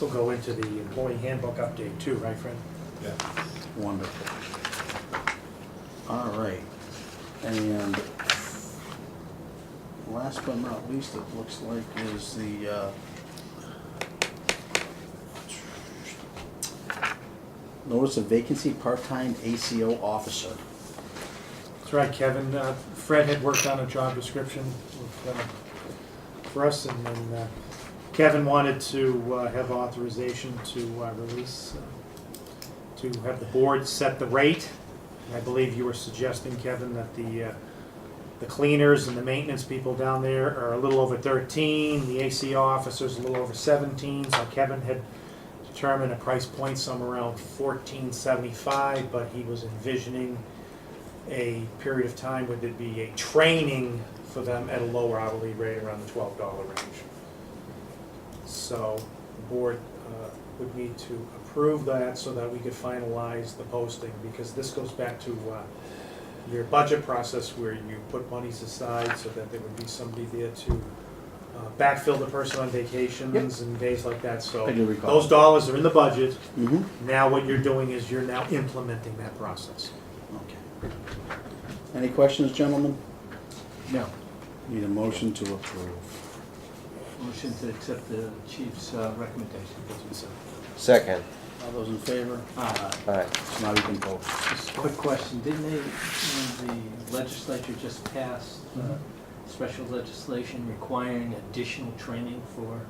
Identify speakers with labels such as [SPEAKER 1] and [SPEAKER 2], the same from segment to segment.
[SPEAKER 1] will go into the employee handbook update too, right, Fred?
[SPEAKER 2] Yeah.
[SPEAKER 3] Wonderful. All right, and last but not least, it looks like is the, uh, uh, notice of vacancy, part-time ACO officer.
[SPEAKER 1] That's right, Kevin. Uh, Fred had worked on a job description with, uh, for us, and then uh, Kevin wanted to uh, have authorization to uh, release, uh, to have the board set the rate. And I believe you were suggesting, Kevin, that the, uh, the cleaners and the maintenance people down there are a little over 13, the ACO officer's a little over 17, so Kevin had determined a price point somewhere around 1475, but he was envisioning a period of time would it be a training for them at a lower hourly rate around the twelve dollar range. So the board uh, would need to approve that so that we could finalize the posting because this goes back to uh, your budget process where you put monies aside so that there would be somebody there to uh, backfill the person on vacations and days like that, so
[SPEAKER 3] I do recall.
[SPEAKER 1] those dollars are in the budget.
[SPEAKER 3] Mm-hmm.
[SPEAKER 1] Now what you're doing is you're now implementing that process.
[SPEAKER 3] Okay. Any questions, gentlemen?
[SPEAKER 4] No.
[SPEAKER 3] Need a motion to approve.
[SPEAKER 4] Motion to accept the chief's uh, recommendation.
[SPEAKER 5] Second,
[SPEAKER 3] All those in favor?
[SPEAKER 4] Uh,
[SPEAKER 5] aye.
[SPEAKER 3] So now you can vote.
[SPEAKER 4] Just a quick question, didn't they, when the legislature just passed uh,
[SPEAKER 1] Mhm.
[SPEAKER 4] special legislation requiring additional training for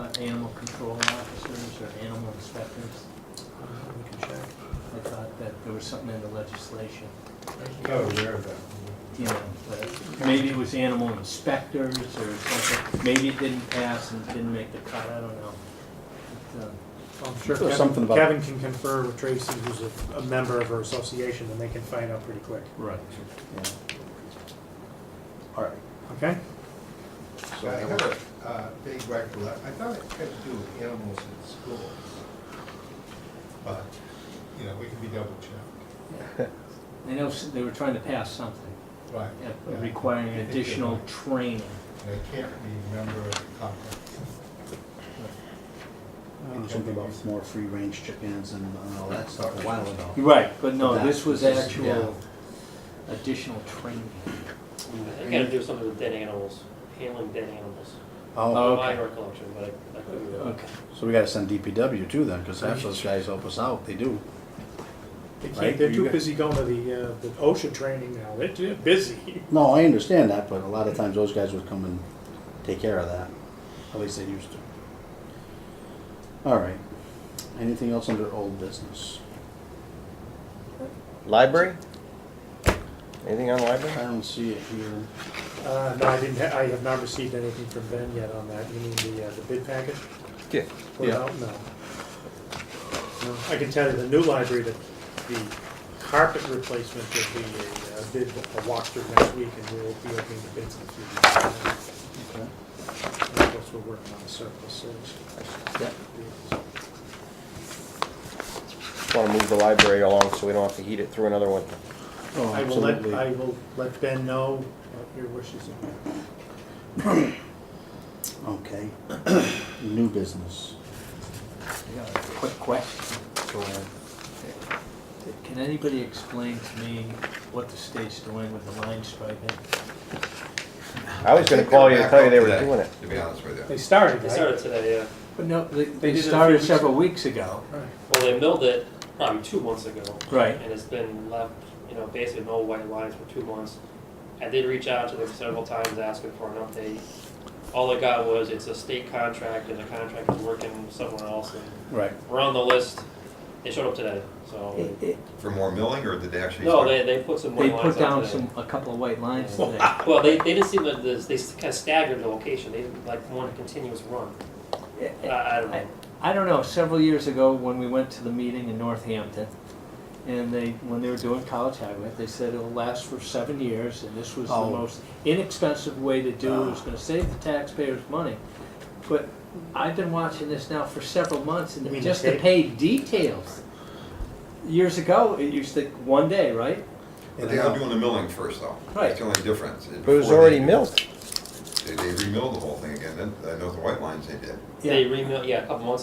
[SPEAKER 4] uh, animal control officers or animal inspectors?
[SPEAKER 1] Uh, We can check.
[SPEAKER 4] I thought that there was something in the legislation,
[SPEAKER 2] No, aware of that.
[SPEAKER 4] you know, but maybe it was animal inspectors or something, maybe it didn't pass and didn't make the cut, I don't know. But, uh,
[SPEAKER 1] I'm sure
[SPEAKER 3] There's something
[SPEAKER 1] Kevin, Kevin
[SPEAKER 3] about-
[SPEAKER 1] can confer with Tracy, who's a, a member of her association, and they can find out pretty quick,
[SPEAKER 4] Right.
[SPEAKER 3] Yeah. All right.
[SPEAKER 1] okay?
[SPEAKER 2] I have a uh, big recollection, I thought it had to do with animals in schools. But, you know, we can be double checked.
[SPEAKER 4] I know s- they were trying to pass something.
[SPEAKER 2] Right.
[SPEAKER 4] uh,
[SPEAKER 2] Yeah.
[SPEAKER 4] requiring
[SPEAKER 2] I think they
[SPEAKER 4] additional
[SPEAKER 2] were.
[SPEAKER 4] training.
[SPEAKER 2] And I can't remember the context.
[SPEAKER 1] Uh,
[SPEAKER 3] Something about more free-range chickens and and all that stuff a while ago.
[SPEAKER 4] Right. But no,
[SPEAKER 3] That-
[SPEAKER 4] this was
[SPEAKER 3] this is-
[SPEAKER 4] actual additional training.
[SPEAKER 6] It had to do something with dead animals, handling dead animals.
[SPEAKER 3] Oh,
[SPEAKER 4] Okay.
[SPEAKER 6] My recollection, but I, I couldn't. remember.
[SPEAKER 4] Okay.
[SPEAKER 3] so we gotta send DPW too then, because half those guys help us out, they do.
[SPEAKER 1] They can't,
[SPEAKER 3] Right,
[SPEAKER 1] they're
[SPEAKER 3] you
[SPEAKER 1] too
[SPEAKER 3] got-
[SPEAKER 1] busy going to the, uh, the OSHA training now, they're too busy.
[SPEAKER 3] No, I understand that, but a lot of times those guys would come and take care of that, at least they used to. All right, anything else under old business?
[SPEAKER 5] Library? Anything on library?
[SPEAKER 3] I don't see it here.
[SPEAKER 1] Uh, no, I didn't, ha- I have not received anything from Ben yet on that, you mean the, uh, the bid package?
[SPEAKER 5] Yeah.
[SPEAKER 1] Put it
[SPEAKER 3] Yeah.
[SPEAKER 1] out? No. No. I can tell you the new library, that the carpet replacement will be a, uh bid, a walkthrough next week, and we'll be opening the bids in a few weeks.
[SPEAKER 3] Okay.
[SPEAKER 1] And Of course, we're working on the surplus sales.
[SPEAKER 3] Yep.
[SPEAKER 5] Just wanna move the library along so we don't have to heat it through another one.
[SPEAKER 3] Oh,
[SPEAKER 1] I will let,
[SPEAKER 3] absolutely.
[SPEAKER 1] I will let Ben know what your wishes are.
[SPEAKER 3] Okay, new business.
[SPEAKER 4] Yeah, Quick question.
[SPEAKER 3] Go ahead.
[SPEAKER 4] Can anybody explain to me what the state's doing with the line striping?
[SPEAKER 5] I was gonna call you and tell you they were doing it.
[SPEAKER 7] To be honest with
[SPEAKER 1] They
[SPEAKER 7] you.
[SPEAKER 1] started,
[SPEAKER 6] They
[SPEAKER 1] right?
[SPEAKER 6] started today, yeah.
[SPEAKER 4] But no, they,
[SPEAKER 1] did it
[SPEAKER 4] they
[SPEAKER 1] a few
[SPEAKER 4] started
[SPEAKER 1] weeks
[SPEAKER 4] several weeks ago.
[SPEAKER 1] Right.
[SPEAKER 6] Well, they milled it, um, two months ago.
[SPEAKER 4] Right.
[SPEAKER 6] And it's been left, you know, basically no white lines for two months. I did reach out to them several times asking for an update. All I got was it's a state contract and the contract is working somewhere else and
[SPEAKER 3] Right.
[SPEAKER 6] we're on the list. They showed up today, so.
[SPEAKER 7] For more milling, or did they actually?
[SPEAKER 6] No, they, they put some
[SPEAKER 4] They
[SPEAKER 6] white lines out
[SPEAKER 4] put down
[SPEAKER 6] today.
[SPEAKER 4] some, a couple of white lines
[SPEAKER 6] Wow.
[SPEAKER 4] today.
[SPEAKER 6] Well, they, they just seem like this, they kind of staggered the location. They didn't like want a continuous run. I, I don't know.
[SPEAKER 4] I don't know, several years ago, when we went to the meeting in Northampton, and they, when they were doing College Highway, they said it'll last for seven years, and this was the
[SPEAKER 3] Oh.
[SPEAKER 4] most inexpensive way to do it, it was gonna save the taxpayers money. But I've been watching this now for several months,
[SPEAKER 1] You mean
[SPEAKER 4] and
[SPEAKER 1] the
[SPEAKER 4] just the
[SPEAKER 1] tape?
[SPEAKER 4] paid details. Years ago, it used to, one day, right?
[SPEAKER 7] But they are doing the milling first, though.
[SPEAKER 4] Right.
[SPEAKER 7] That's the only difference.
[SPEAKER 5] But it was
[SPEAKER 7] Before
[SPEAKER 5] already
[SPEAKER 7] they-
[SPEAKER 5] milled.
[SPEAKER 7] They, they remilled the whole thing again, then, I know the white lines they did.
[SPEAKER 6] They remilled, yeah, a couple months ago.